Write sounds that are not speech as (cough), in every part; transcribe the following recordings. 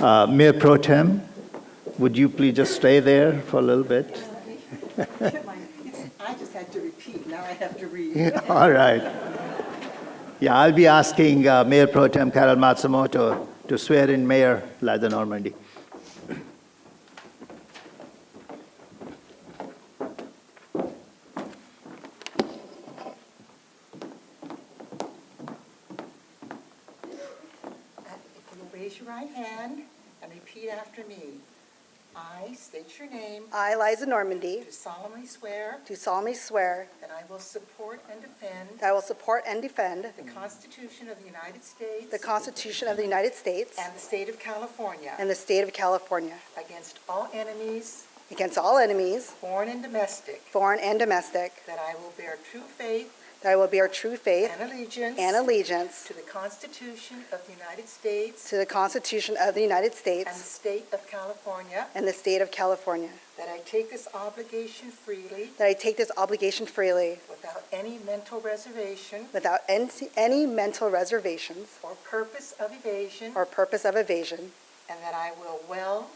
Uh, Mayor Pro Tem, would you please just stay there for a little bit? (laughs) (laughs) I just had to repeat, now I have to read. Yeah, All right. Yeah, I'll be asking uh, Mayor Pro Tem Carol Matsumoto to swear in Mayor Liza Normandy. If you raise your right hand and repeat after me. I state your name, I, Liza Normandy, do solemnly swear do solemnly swear that I will support and defend that I will support and defend the Constitution of the United States the Constitution of the United States and the state of California and the state of California against all enemies, against all enemies, foreign and domestic, foreign and domestic, that I will bear true faith that I will bear true faith and allegiance and allegiance to the Constitution of the United States to the Constitution of the United and the States state of California, and the state of California, that I take this obligation freely that I take this obligation freely Without any mental reservation without en- any mental reservations or purpose of evasion, or purpose of evasion, and that I will well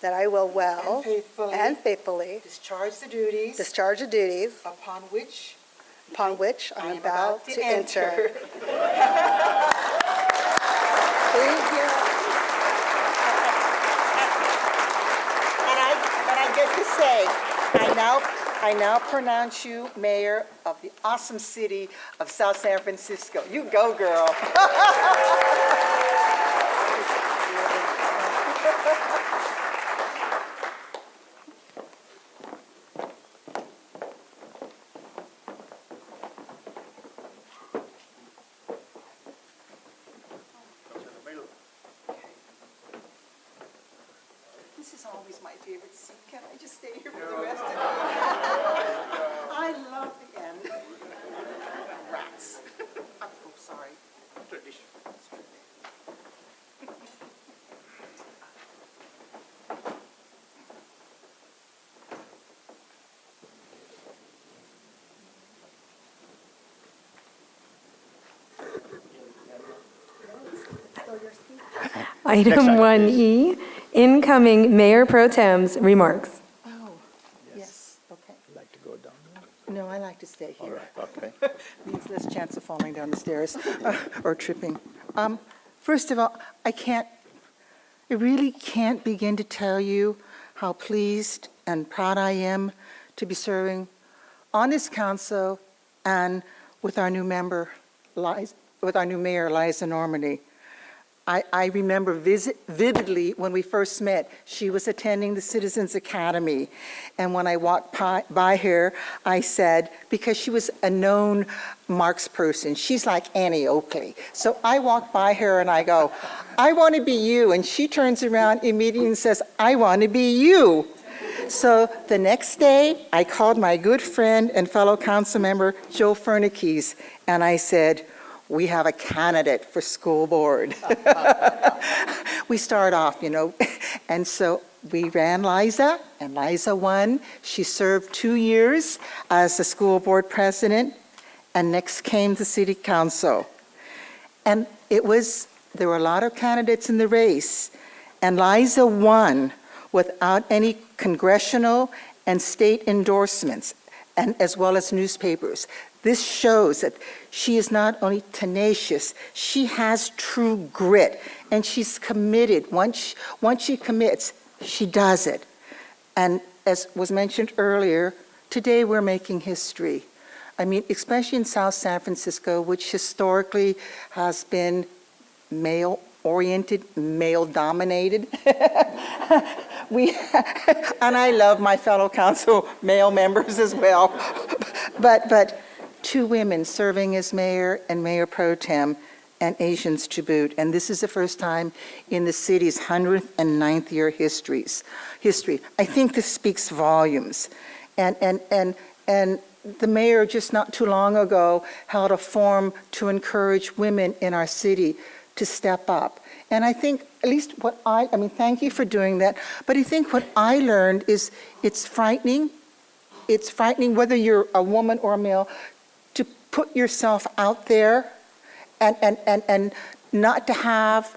that I will and well faithfully and faithfully discharge the duties discharge the duties upon which upon which I I'm am about to (laughs) enter. Thank you. And I, and I get to say, I now, I now pronounce you mayor of the awesome city of South San Francisco. You go, girl. This is always my favorite seat. Can I just stay here for the rest of it? I love the end. Rats. (laughs) I'm so sorry. Tradition. Next Item item, 1E, incoming Mayor Pro Tem's remarks. Oh, yes, okay. Like to go down? No, I like to stay here. Okay. (laughs) means less chance of falling down the stairs uh, or tripping. Um, First of all, I can't, I really can't begin to tell you how pleased and proud I am to be serving on this council and with our new member, Liz- with our new mayor, Liza Normandy. I, I remember visit- vividly when we first met, she was attending the Citizens Academy. And when I walked pi- by her, I said, because she was a known Marx person, she's like Annie Oakley. So I walked by her and I go, I want to be you. And she turns around immediately and says, I want to be you. So the next day, I called my good friend and fellow council member, Joe Fernikes, and I said, we have a candidate for school board. We start off, you know, (laughs) and so we ran Liza, and Liza won. She served two years as the school board president, and next came the city council. And it was, there were a lot of candidates in the race, and Liza won without any congressional and state endorsements, and as well as newspapers. This shows that she is not only tenacious, she has true grit, and she's committed. Once, she- once she commits, she does it. And as was mentioned earlier, today we're making history. I mean, especially in South San Francisco, which historically has been male-oriented, male-dominated. (laughs) We, (laughs) and I love my fellow council male members as well. (laughs) But, but two women serving as mayor and mayor pro tem, and Asians to boot. And this is the first time in the city's 100th and 9th year histories, history. I think this speaks volumes. And, and, and, and the mayor just not too long ago held a forum to encourage women in our city to step up. And I think, at least what I, I mean, thank you for doing that, but I think what I learned is it's frightening. It's frightening whether you're a woman or a male to put yourself out there and, and, and, and not to have